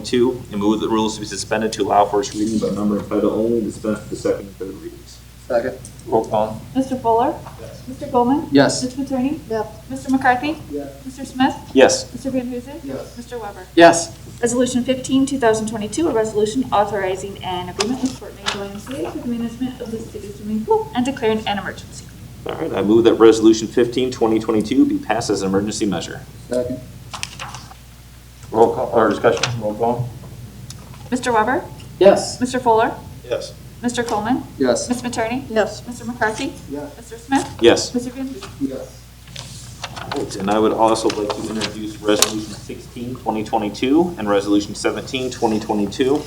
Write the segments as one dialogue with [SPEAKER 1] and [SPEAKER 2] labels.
[SPEAKER 1] Two, and move that the rules be suspended to allow first reading by number and title only, dispense with the second and third readings.
[SPEAKER 2] Second.
[SPEAKER 1] Roll call.
[SPEAKER 3] Mr. Fuller?
[SPEAKER 2] Yes.
[SPEAKER 3] Mr. Goldman?
[SPEAKER 4] Yes.
[SPEAKER 3] Mr. Matroni?
[SPEAKER 2] Yes.
[SPEAKER 3] Mr. McCarthy?
[SPEAKER 2] Yes.
[SPEAKER 3] Mr. Smith?
[SPEAKER 1] Yes.
[SPEAKER 3] Mr. Van Huzen?
[SPEAKER 2] Yes.
[SPEAKER 3] Mr. Weber?
[SPEAKER 4] Yes.
[SPEAKER 3] Resolution 15, 2022, a resolution authorizing an agreement with Fort Wayne Boiling City for the management of the city swimming pool and declaring an emergency.
[SPEAKER 1] All right, I move that Resolution 15, 2022 be passed as an emergency measure.
[SPEAKER 2] Second.
[SPEAKER 1] Roll call, or discussion, roll call.
[SPEAKER 3] Mr. Weber?
[SPEAKER 4] Yes.
[SPEAKER 3] Mr. Fuller?
[SPEAKER 1] Yes.
[SPEAKER 3] Mr. Coleman?
[SPEAKER 4] Yes.
[SPEAKER 3] Ms. Matroni?
[SPEAKER 2] Yes.
[SPEAKER 3] Mr. McCarthy?
[SPEAKER 2] Yes.
[SPEAKER 3] Mr. Smith?
[SPEAKER 1] Yes.
[SPEAKER 3] Mr. Van Huzen?
[SPEAKER 2] Yes.
[SPEAKER 1] And I would also like to introduce Resolution 16, 2022, and Resolution 17, 2022,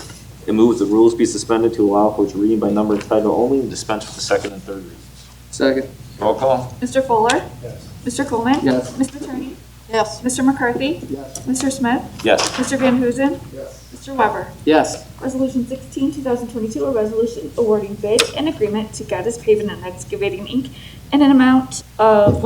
[SPEAKER 1] and move that the rules be suspended to allow first reading by number and title only, and dispense with the second and third readings.
[SPEAKER 4] Second.
[SPEAKER 1] Roll call.
[SPEAKER 3] Mr. Fuller?
[SPEAKER 2] Yes.
[SPEAKER 3] Mr. Coleman?
[SPEAKER 4] Yes.
[SPEAKER 3] Ms. Matroni?
[SPEAKER 2] Yes.
[SPEAKER 3] Mr. McCarthy?
[SPEAKER 2] Yes.
[SPEAKER 3] Mr. Smith?
[SPEAKER 1] Yes.
[SPEAKER 3] Mr. Van Huzen?
[SPEAKER 2] Yes.
[SPEAKER 3] Mr. Weber?
[SPEAKER 4] Yes.
[SPEAKER 3] Resolution 16, 2022, a resolution awarding bid and agreement to Gaddis Paving and Excavating, Inc. in an amount of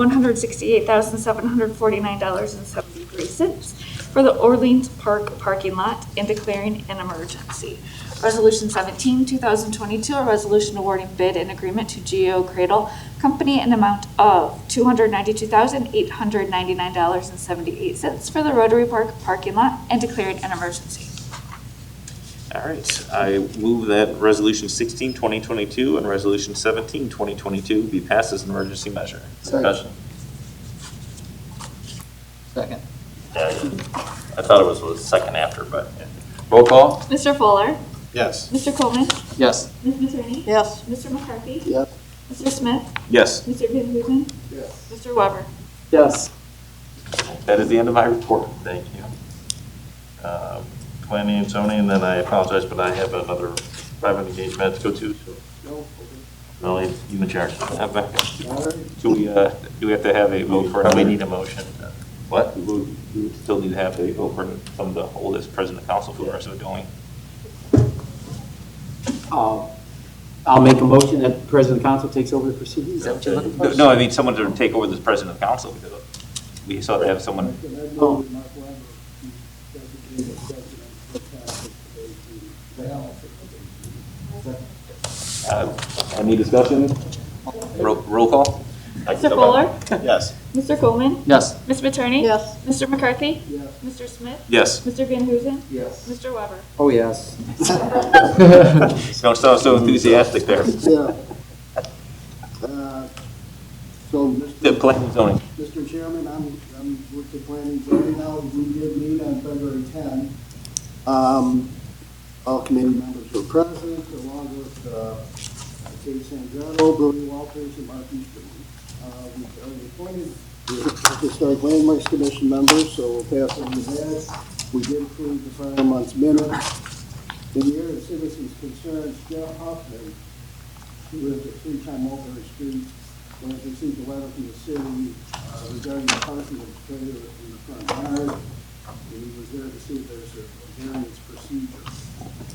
[SPEAKER 3] $168,749.73 for the Orleans Park parking lot and declaring an emergency. Resolution 17, 2022, a resolution awarding bid and agreement to Geo Cradle Company in amount of $292,899.78 for the Rotary Park parking lot and declaring an emergency.
[SPEAKER 1] All right, I move that Resolution 16, 2022, and Resolution 17, 2022 be passed as an emergency measure.
[SPEAKER 4] Second.
[SPEAKER 1] Discussion.
[SPEAKER 4] Second.
[SPEAKER 5] I thought it was the second after, but. Roll call?
[SPEAKER 3] Mr. Fuller?
[SPEAKER 5] Yes.
[SPEAKER 3] Mr. Coleman?
[SPEAKER 4] Yes.
[SPEAKER 3] Ms. Matroni?
[SPEAKER 2] Yes.
[SPEAKER 3] Mr. McCarthy?
[SPEAKER 4] Yes.
[SPEAKER 3] Mr. Smith?
[SPEAKER 1] Yes,
[SPEAKER 3] Mr. Van Huzen?
[SPEAKER 2] Yes.
[SPEAKER 3] Mr. Weber?
[SPEAKER 4] Yes.
[SPEAKER 1] that is the end of my report.
[SPEAKER 5] Thank you. Um, Planning and zoning, then I apologize, but I have another private engagement to go to, so
[SPEAKER 2] No.
[SPEAKER 5] Melanie, you in charge.
[SPEAKER 1] Uh, Becca,
[SPEAKER 2] All right.
[SPEAKER 1] Do we, uh, do we have to have a vote for?
[SPEAKER 5] We need a motion.
[SPEAKER 1] What? We would- we would still need to have a vote for some of the oldest president of council for the rest of the going.
[SPEAKER 4] Uh, I'll make a motion that President Council takes over the proceedings. Is that what you're looking for?
[SPEAKER 1] No, I mean, someone to take over this president of council because we still have to have someone.
[SPEAKER 2] And I know that Mark Weimer, he designated president for council today to balance it.
[SPEAKER 1] uh,
[SPEAKER 2] Second.
[SPEAKER 1] Any discussion? Roll roll call?
[SPEAKER 3] Mr. Fuller?
[SPEAKER 5] Yes.
[SPEAKER 3] Mr. Coleman?
[SPEAKER 4] Yes.
[SPEAKER 3] Ms. Matroni?
[SPEAKER 2] Yes.
[SPEAKER 3] Mr. McCarthy?
[SPEAKER 2] Yes.
[SPEAKER 3] Mr. Smith?
[SPEAKER 1] Yes.
[SPEAKER 3] Mr. Van Huzen?
[SPEAKER 2] Yes.
[SPEAKER 3] Mr. Weber?
[SPEAKER 4] Oh, yes.
[SPEAKER 1] Don't sound so enthusiastic there.
[SPEAKER 2] Yeah. Uh, So,
[SPEAKER 1] The
[SPEAKER 2] Mr.
[SPEAKER 1] planning and zoning.
[SPEAKER 2] Mr. Chairman, I'm, I'm with the planning board now, we did meet on February 10. Um, All committee members were present, along with uh, Kate Sandrato, Brody Walters, and Mark Easterman. Uh, We've already appointed the Historic Landmarks Commission members, so we'll pass on to that. We did approve the prior month's minutes. In the area of citizens' concerns, Jeff Hoffman, who lives at three time Mulberry Street, when it received a letter from the city uh, regarding the parking of the trailer in the front yard, and he was there to see if there's a a variance procedure.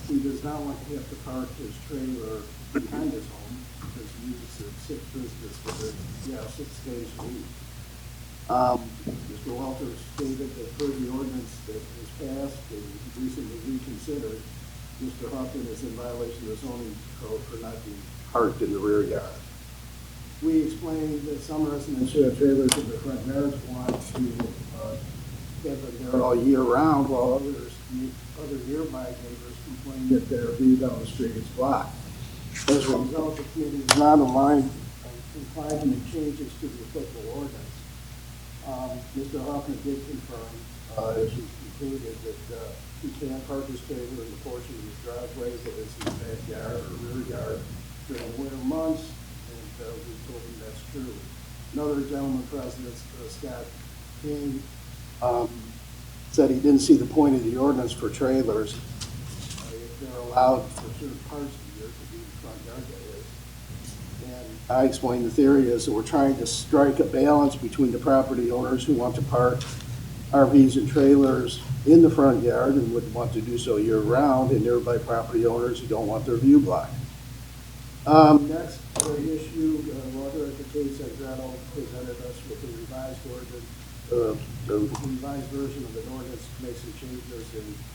[SPEAKER 2] He does not want to have to park his trailer behind his home, because he uses it six business for the, yeah, six days a week. Um, Mr. Walters stated that per the ordinance that was passed and recently reconsidered, Mr. Hoffman is in violation of the zoning code for not being parked in the rear yard. We explained that some residents who have trailers in their front yards want to uh, have them there all year round, while others, other nearby neighbors complain that their view down the street is blocked. As a result, the committee is not aligned and complied to make changes to the applicable ordinance. Um, Mr. Hoffman did confirm, uh, as he concluded, that, uh, he can park his trailer in the porch of his driveway, that is his backyard or rear yard during winter months, and, uh, we told him that's true. Another gentleman present, uh, Scott King, um, said he didn't see the point of the ordinance for trailers. uh, If they're allowed for certain parts of the year to be in the front yard, that is. And I explained the theory is that we're trying to strike a balance between the property owners who want to park RVs and trailers in the front yard and would want to do so year-round, and nearby property owners who don't want their view blocked. Um, Next uh, issue, uh, Walter at the case that Gretel presented us with a revised ordinance, uh, the revised version of an ordinance, to make some changes in